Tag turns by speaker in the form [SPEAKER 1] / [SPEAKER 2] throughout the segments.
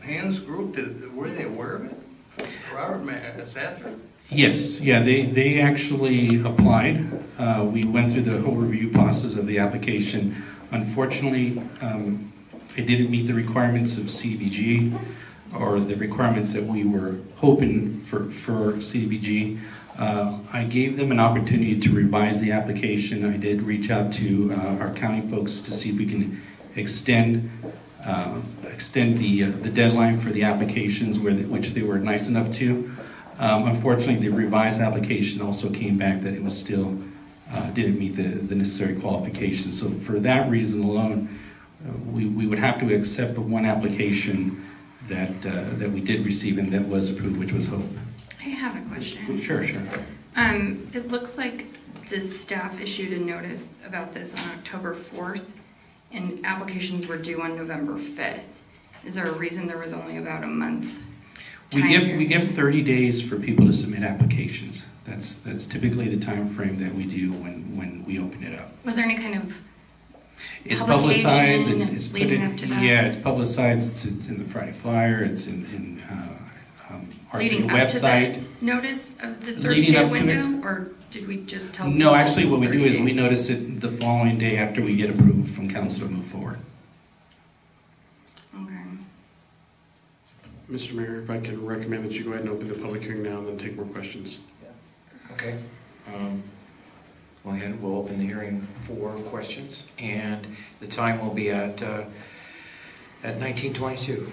[SPEAKER 1] Penn's group, did, were they aware of it? Robert uh, Massacher?
[SPEAKER 2] Yes, yeah, they, they actually applied. Uh, We went through the whole review process of the application. Unfortunately, um, it didn't meet the requirements of CDBG or the requirements that we were hoping for, for CDBG. Uh, I gave them an opportunity to revise the application. I did reach out to uh, our county folks to see if we can extend, uh, extend the, uh, the deadline for the applications where, the- which they were nice enough to. Um, Unfortunately, the revised application also came back that it was still, uh, didn't meet the the necessary qualifications. So for that reason alone, uh, we we would have to accept the one application that, uh, that we did receive and that was approved, which was Hope.
[SPEAKER 3] I have a question.
[SPEAKER 2] Sure, sure.
[SPEAKER 3] Um, it looks like the staff issued a notice about this on October fourth, and applications were due on November fifth. Is there a reason there was only about a month?
[SPEAKER 2] We
[SPEAKER 3] time
[SPEAKER 2] give,
[SPEAKER 3] here?
[SPEAKER 2] we give 30 days for people to submit applications. That's, that's typically the time frame that we do when, when we open it up.
[SPEAKER 3] Was there any kind of,
[SPEAKER 2] It's
[SPEAKER 3] Publication
[SPEAKER 2] publicized, it's, it's put
[SPEAKER 3] leading
[SPEAKER 2] in-
[SPEAKER 3] up to that.
[SPEAKER 2] Yeah, it's publicized, it's, it's in the Friday Flyer, it's in, in, uh, um, our city
[SPEAKER 3] leading up to
[SPEAKER 2] website.
[SPEAKER 3] the notice of the
[SPEAKER 2] Leading
[SPEAKER 3] thirty-day
[SPEAKER 2] up to it?
[SPEAKER 3] window, or did we just tell?
[SPEAKER 2] No,
[SPEAKER 3] people
[SPEAKER 2] actually, what we do
[SPEAKER 3] 30
[SPEAKER 2] is we
[SPEAKER 3] days?
[SPEAKER 2] notice it the following day after we get approved from council to move forward.
[SPEAKER 3] Okay.
[SPEAKER 4] Mr. Mayor, if I can recommend that you go ahead and open the public hearing now and then take more questions.
[SPEAKER 5] Okay. um, Go ahead, we'll open the hearing for questions, and the time will be at, uh, at 19:22.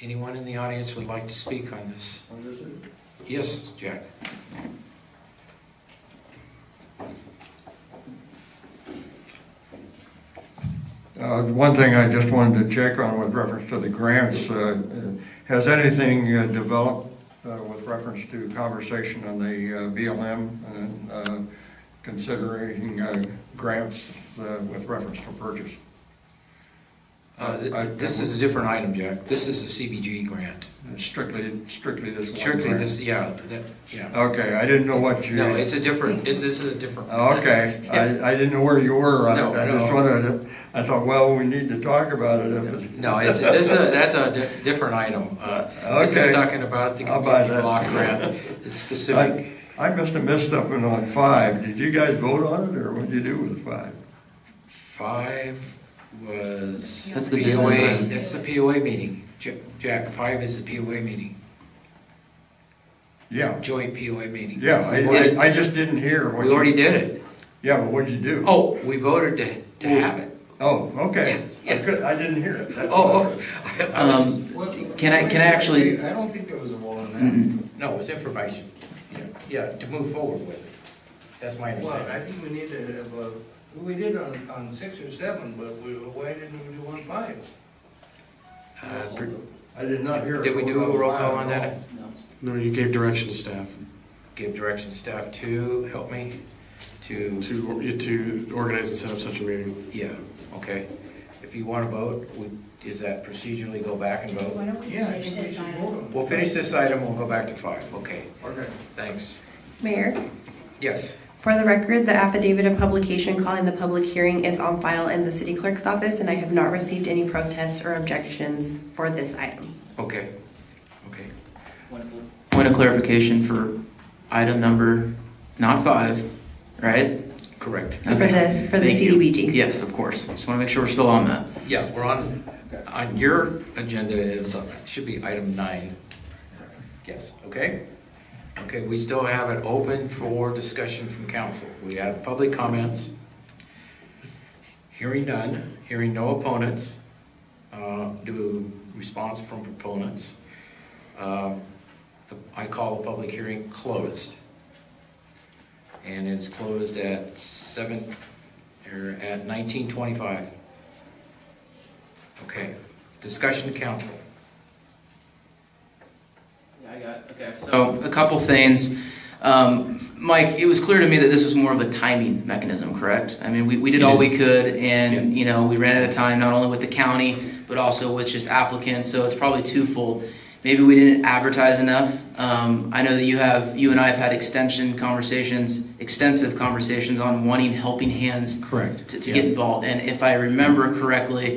[SPEAKER 5] Anyone in the audience would like to speak on this? Yes, Jack?
[SPEAKER 6] Uh, One thing I just wanted to check on with reference to the grants, uh, uh, has anything uh, developed uh, with reference to conversation on the uh, BLM and uh, considering uh, grants uh, with reference to purchase?
[SPEAKER 5] Uh, th-
[SPEAKER 6] I-
[SPEAKER 5] This is a different item, Jack. This is a CBG grant.
[SPEAKER 6] Strictly, strictly this one?
[SPEAKER 5] Strictly
[SPEAKER 6] grant? Oh,
[SPEAKER 5] this, yeah, that, yeah.
[SPEAKER 6] Okay, I didn't know what you.
[SPEAKER 5] No, it's a different, it's, this is a different.
[SPEAKER 6] Oh, Okay, I, I didn't know where you were. I
[SPEAKER 5] No,
[SPEAKER 6] I just
[SPEAKER 5] no.
[SPEAKER 6] wanted, to- I thought, well, we need to talk about it if it's.
[SPEAKER 5] No, it's, this is, a- that's a di- different item. Uh, This is
[SPEAKER 6] Okay.
[SPEAKER 5] talking about the
[SPEAKER 6] I'll buy
[SPEAKER 5] community
[SPEAKER 6] that.
[SPEAKER 5] block grant, it's specific.
[SPEAKER 6] I I must have missed something on five. Did you guys vote on it, or what'd you do with five?
[SPEAKER 5] Five was.
[SPEAKER 3] That's
[SPEAKER 4] the
[SPEAKER 5] POA
[SPEAKER 4] business item.
[SPEAKER 5] That's the POA meeting. Ja- Jack, five is the POA meeting,
[SPEAKER 6] Yeah,
[SPEAKER 5] joint POA meeting.
[SPEAKER 6] yeah,
[SPEAKER 5] We
[SPEAKER 6] I-
[SPEAKER 5] already-
[SPEAKER 6] I, I just didn't hear what
[SPEAKER 5] We already
[SPEAKER 6] you,
[SPEAKER 5] did it.
[SPEAKER 6] yeah, but what'd you do?
[SPEAKER 5] Oh, we voted to, to have it.
[SPEAKER 6] Oh, okay.
[SPEAKER 5] Yeah,
[SPEAKER 6] I
[SPEAKER 5] yeah.
[SPEAKER 6] could, I didn't hear it. That's
[SPEAKER 5] Oh,
[SPEAKER 6] all.
[SPEAKER 5] oh, I was-
[SPEAKER 7] Um, Can I- can I actually-
[SPEAKER 1] I don't think there was a vote on
[SPEAKER 7] mm,
[SPEAKER 5] no, it was information. Yeah, Yeah, to move forward with it. That's my
[SPEAKER 1] that. Well, I
[SPEAKER 5] understanding.
[SPEAKER 1] think we need to have a, we did on, on six or seven, but we, why didn't we do on five?
[SPEAKER 5] Uh, pr-
[SPEAKER 6] I did not hear it.
[SPEAKER 5] Did we do a roll call on that?
[SPEAKER 4] No, you gave direction to staff
[SPEAKER 5] Give direction staff to, help me, to,
[SPEAKER 4] to, to organize and set up such a meeting.
[SPEAKER 5] yeah, okay. If you want to vote, would- is that procedurally go back and vote?
[SPEAKER 8] Why don't we
[SPEAKER 1] Yeah, I
[SPEAKER 8] finish
[SPEAKER 1] think we
[SPEAKER 8] this
[SPEAKER 1] should
[SPEAKER 8] item?
[SPEAKER 1] vote on it.
[SPEAKER 5] We'll finish this item, we'll go back to five, okay,
[SPEAKER 6] Okay.
[SPEAKER 5] thanks.
[SPEAKER 9] Mayor,
[SPEAKER 5] Yes,
[SPEAKER 9] for the record, the affidavit of publication calling the public hearing is on file in the city clerk's office, and I have not received any protests or objections for this item.
[SPEAKER 5] okay, okay.
[SPEAKER 7] Point of clarification for item number, not five, right?
[SPEAKER 5] Correct.
[SPEAKER 9] For the, for the
[SPEAKER 7] Thank you.
[SPEAKER 9] CDBG.
[SPEAKER 7] Yes, of course. Just want to make sure we're still on that.
[SPEAKER 5] Yeah, we're on, on your agenda is, should be item nine. Yes, okay? Okay, we still have it open for discussion from council. We have public comments. Hearing none, hearing no opponents, uh, do response from proponents. Uh, the- I call the public hearing closed. And it's closed at seven, or at nineteen twenty-five. Okay, discussion to council.
[SPEAKER 7] Yeah, I got, okay, so a couple things. Um, Mike, it was clear to me that this was more of a timing mechanism, correct? I mean, we, we did
[SPEAKER 2] It
[SPEAKER 7] all
[SPEAKER 2] is.
[SPEAKER 7] we could and, you know, we ran out of time, not only with the county, but also with just applicants, so it's probably twofold. Maybe we didn't advertise enough. Um, I know that you have, you and I have had extension conversations, extensive conversations on wanting helping hands
[SPEAKER 2] Correct.
[SPEAKER 7] to, to get involved. And if I remember correctly,